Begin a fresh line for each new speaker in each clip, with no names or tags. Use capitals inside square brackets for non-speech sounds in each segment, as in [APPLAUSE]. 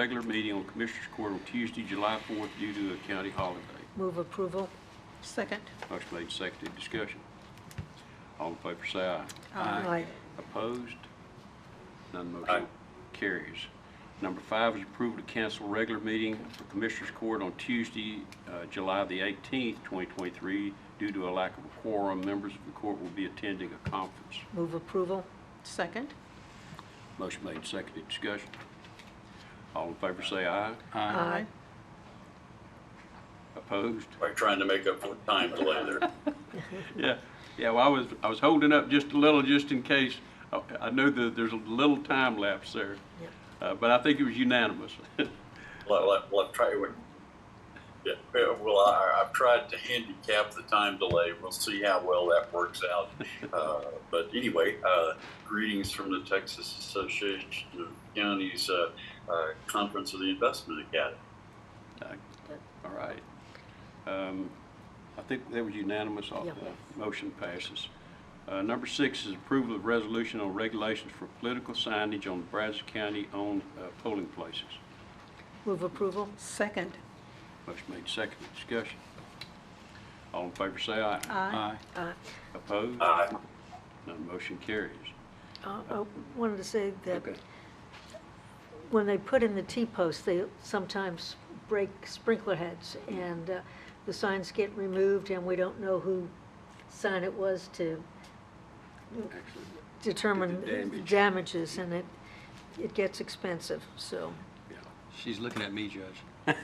regular meeting on Commissioners Court on Tuesday, July 4th, due to a county holiday.
Move approval.
Second.
Motion made, seconded, discussion. All in favor, say aye.
Aye.
Opposed? None
Aye.
motion carries. Number five is approval to cancel regular meeting for Commissioners Court on Tuesday, uh, July the 18th, 2023, due to a lack of a quorum. Members of the court will be attending a conference.
Move approval.
Second.
Motion made, seconded, discussion. All in favor, say aye.
Aye.
Opposed?
We're trying to make up for time delay there.
Yeah, yeah, well, I was, I was holding up just a little, just in case. I- I know that there's a little time lapse there,
Yep.
uh, but I think it was unanimous. [LAUGHS]
Let, let, let, try, we- yeah, well, I, I've tried to handicap the time delay. We'll see how well that works out. Uh, but anyway, uh, greetings from the Texas Association of Counties, uh, uh, Conference of the Investment Academy.
All right. Um, I think that was unanimous, all,
Yeah.
uh, motion passes. Uh, Number six is approval of resolution on regulations for political signage on Brazos County-owned uh, polling places.
Move approval.
Second.
Motion made, seconded, discussion. All in favor, say aye.
Aye.
Aye.
Opposed?
Aye.
None motion carries.
Uh, I wanted to say that
Okay.
when they put in the T-posts, they sometimes break sprinkler heads, and uh, the signs get removed, and we don't know who sign it was to
Excellent.
determine
The damage.
damages, and it, it gets expensive, so.
She's looking at me, Judge.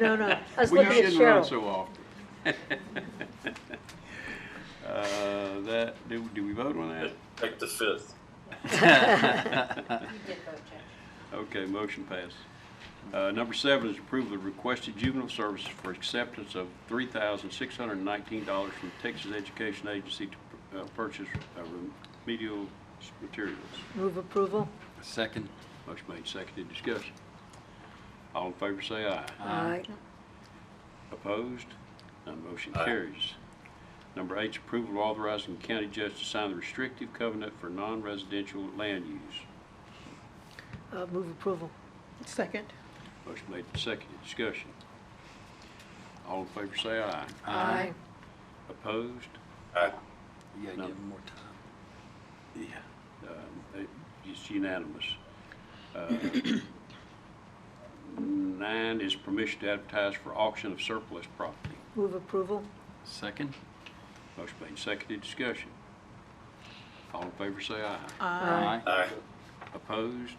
No, no, I was
Well,
looking
you
at
shouldn't run
Cheryl.
so often. [LAUGHS] Uh, That, do, do we vote on that?
Take the fifth.
Okay, motion passed. Uh, Number seven is approval of requested juvenile services for acceptance of $3,619 from Texas Education Agency to uh, purchase uh, remedial materials.
Move approval.
Second.
Motion made, seconded, discussion. All in favor, say aye.
Aye.
Opposed? None motion
Aye.
carries. Number eight, is approval of authorizing the county judge to sign the restrictive covenant for non-residential land use.
Uh, Move approval.
Second.
Motion made and seconded. Discussion. All in favor say aye.
Aye.
Opposed?
Aye.
You gotta
No.
give him more time.
Yeah. Um, it- It's unanimous. Uh, Nine is permission to advertise for auction of surplus property.
Move approval.
Second.
Motion made and seconded. Discussion. All in favor say aye.
Aye.
Aye.
Opposed?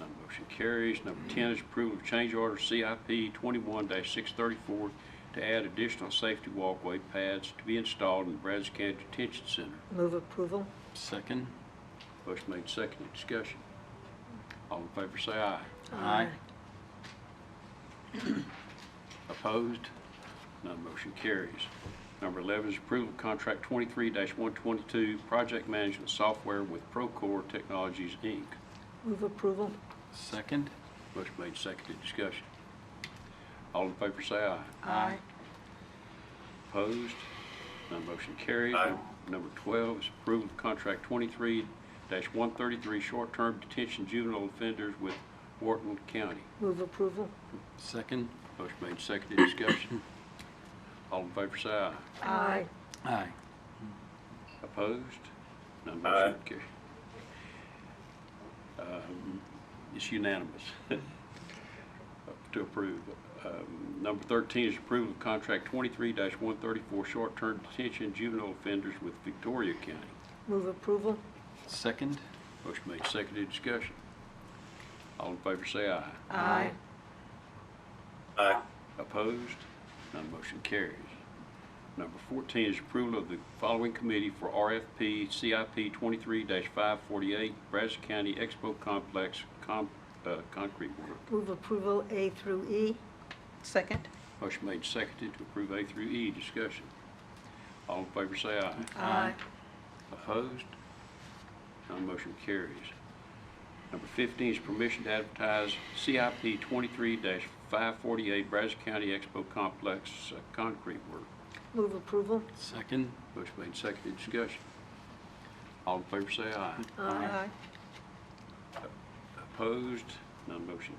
None motion carries. Number 10 is approval of change order CIP 21-634 to add additional safety walkway pads to be installed in the Brazos County Detention Center.
Move approval.
Second.
Motion made, seconded, discussion. All in favor say aye.
Aye.
Opposed? None motion carries. Number 11 is approval of contract 23-122, project management software with Procore Technologies, Inc.
Move approval.
Second.
Motion made, seconded, discussion. All in favor say aye.
Aye.
Opposed? None motion carries.
Aye.
Number 12 is approval of contract 23-133, short-term detention juvenile offenders with Wharton County.
Move approval.
Second.
Motion made, seconded, discussion. [CLEARS THROAT] All in favor, say aye.
Aye.
Aye.
Opposed? None
Aye.
motion carries. Um, It's unanimous [LAUGHS] to approve. Um, Number 13 is approval of contract 23-134, short-term detention juvenile offenders with Victoria County.
Move approval.
Second.
Motion made, seconded, discussion. All in favor say aye.
Aye.
Aye.
Opposed? None motion carries. Number 14 is approval of the following committee for RFP CIP 23-548, Brazos County Expo Complex con- uh, Concrete Work.
Move approval A through E.
Second.
Motion made, seconded, to approve A through E. Discussion. All in favor say aye.
Aye.
Opposed? None motion carries. Number 15 is permission to advertise CIP 23-548 Brazos County Expo Complex uh, concrete work.
Move approval.
Second.
Motion made, seconded, discussion. All in favor say aye.
Aye.
Opposed? None motion